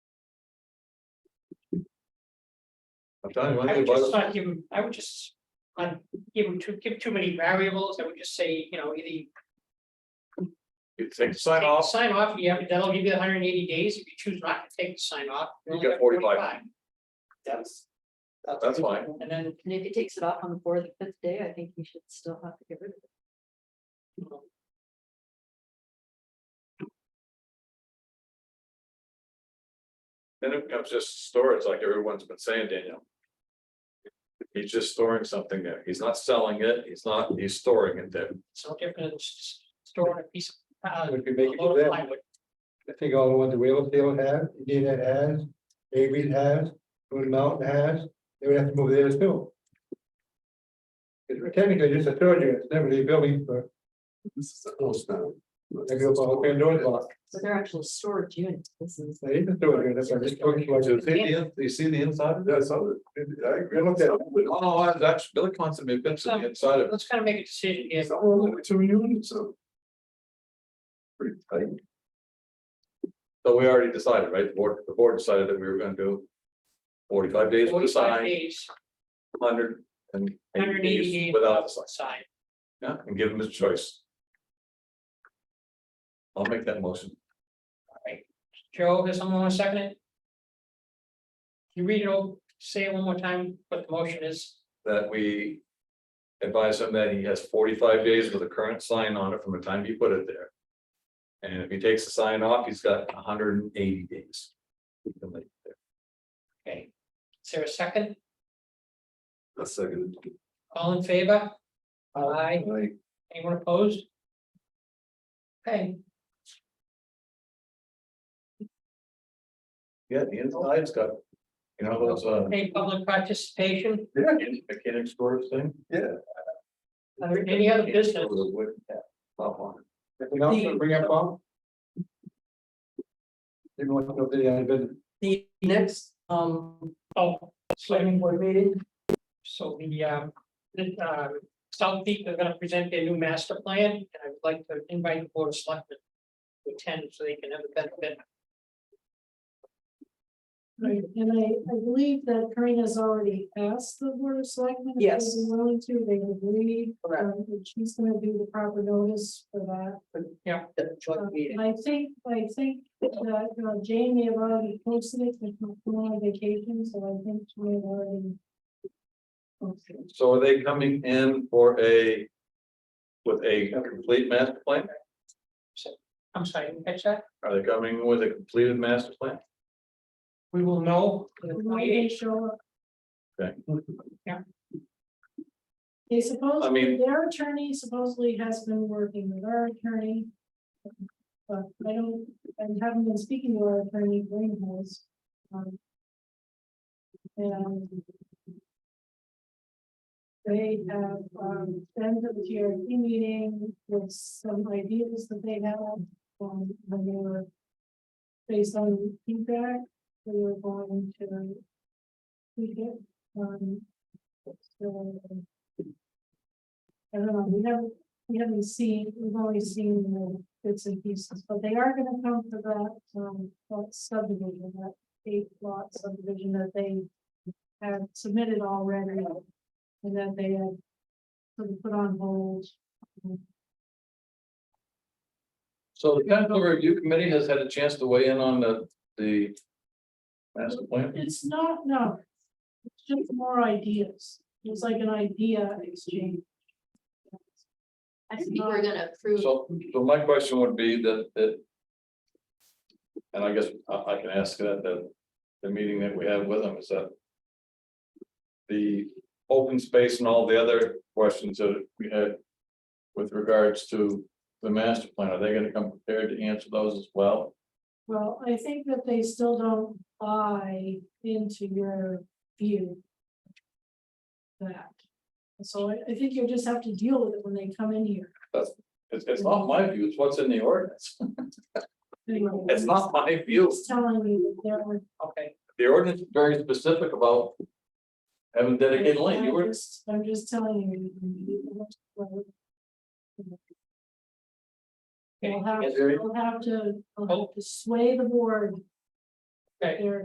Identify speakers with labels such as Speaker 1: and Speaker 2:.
Speaker 1: I'm telling you, one
Speaker 2: I
Speaker 1: thing
Speaker 2: would
Speaker 1: about
Speaker 2: just
Speaker 1: it,
Speaker 2: not give him, I would just, not give him too, give too many variables, I would just say, you know, either.
Speaker 1: you take the sign off,
Speaker 2: Sign off, you have, that'll give you hundred and eighty days, if you choose not to take the sign off.
Speaker 1: You
Speaker 2: only
Speaker 1: got
Speaker 2: have
Speaker 1: 45.
Speaker 2: That's.
Speaker 1: that's fine,
Speaker 2: And then,
Speaker 3: And if he takes it off on the fourth or fifth day, I think we should still have to get rid of it.
Speaker 1: then it becomes just storage, like everyone's been saying, Daniel. He's just storing something there, he's not selling it, he's not, he's storing it there.
Speaker 2: it's no different than s- storing a piece of. uh,
Speaker 4: Would be
Speaker 2: a
Speaker 4: making
Speaker 2: load of
Speaker 4: them,
Speaker 2: plywood.
Speaker 4: I think all the ones that Wheelfield has, Indiana has, Avery has, Moon Mountain has, they would have to move theirs too. It's technically just a third unit, it's never the building, but
Speaker 5: This is a house now.
Speaker 4: they go up and doors block,
Speaker 3: So they're actual storage units. This is.
Speaker 4: they even do it, that's why I'm just talking like.
Speaker 1: Do you see the, in- do you see the inside of it?
Speaker 5: Yeah, so, I agree.
Speaker 4: You looked at it.
Speaker 1: Oh, no, I- that's, Billy Constant made bits of the inside of it.
Speaker 2: Let's kind of make a decision here,
Speaker 5: It's all over two units, so. Pretty tight.
Speaker 1: So we already decided, right? The board, the board decided that we were gonna do. Forty-five days with the
Speaker 2: forty-five
Speaker 1: sign,
Speaker 2: days,
Speaker 1: hundred and
Speaker 2: hundred and eighty
Speaker 1: eighty
Speaker 2: days.
Speaker 1: days without the sign,
Speaker 2: Sign,
Speaker 1: yeah, and give him his choice. I'll make that motion.
Speaker 2: Joe, does someone want to second it? You read it over, say it one more time, what the motion is.
Speaker 1: that we advise him that he has forty-five days with a current sign on it from the time he put it there. And if he takes the sign off, he's got hundred and eighty days. He can leave it there.
Speaker 2: Okay, is there a second?
Speaker 5: A second.
Speaker 2: All in favor? Aye.
Speaker 5: Like,
Speaker 2: Anyone opposed? Okay,
Speaker 1: Yeah, the inside's got, you know, those, uh,
Speaker 2: any public participation,
Speaker 5: yeah,
Speaker 1: mechanic stores thing.
Speaker 2: or any other business?
Speaker 1: With a wood cap top on it.
Speaker 4: Anything else to bring up, Bob? Even want to know if they had been,
Speaker 6: The next, um,
Speaker 2: Oh, so,
Speaker 6: planning board meeting,
Speaker 2: so the, um, the, um, South Peak are gonna present their new master plan, and I would like to invite the board of selectmen to attend so they can have a benefit.
Speaker 7: Right, and I, I believe that Karina's already asked the board of selectmen. if they'd
Speaker 6: Yes.
Speaker 7: be Willing to, they agree,
Speaker 6: Correct.
Speaker 7: she's gonna do the proper notice for that.
Speaker 6: the joint meeting.
Speaker 7: I think, I think that, you know, Jane may have already posted it, but she's going on vacation, so I think she may have already. posted it.
Speaker 1: So are they coming in for a? With a complete master plan?
Speaker 2: I'm sorry, didn't catch that?
Speaker 1: Are they coming with a completed master plan?
Speaker 2: We will know in the
Speaker 7: Why they
Speaker 2: twenty-eighth.
Speaker 7: show up.
Speaker 1: Okay.
Speaker 2: Yeah.
Speaker 7: They
Speaker 1: I mean-
Speaker 7: supposedly, their attorney supposedly has been working with our attorney. But I don't, I haven't been speaking to our attorney, Greenhouse. um, And. They have, um, been to the TRT meeting with some ideas that they have, um, when they were. Based on feedback, we were going to. We get, um. so, I don't know, we haven't, we haven't seen, we've only seen the bits and pieces, but they are gonna come for that, um, that subdivision, that eight lot subdivision that they. Have submitted already, and that they have. Sort of put on hold,
Speaker 1: So the technical review committee has had a chance to weigh in on the, the. Master plan?
Speaker 7: it's not, no. It's just more ideas, it's like an idea exchange.
Speaker 3: I think we're gonna approve.
Speaker 1: So, so my question would be that, that. And I guess I, I can ask it at the, the meeting that we have with them is that. The open space and all the other questions that we had. With regards to the master plan, are they gonna come prepared to answer those as well?
Speaker 7: Well, I think that they still don't buy into your view. That. So I, I think you just have to deal with it when they come in here.
Speaker 1: It's, it's not my view, it's what's in the ordinance. It's
Speaker 7: It's
Speaker 1: not my view.
Speaker 7: Telling me that they're.
Speaker 2: Okay,
Speaker 1: The ordinance is very specific about. Having dedicated lane, you
Speaker 7: I'm
Speaker 1: were,
Speaker 7: just- I'm just telling you.
Speaker 2: okay,
Speaker 7: We'll have,
Speaker 1: Gary?
Speaker 7: we'll have to, we'll have to sway the board.
Speaker 2: Okay.
Speaker 7: They're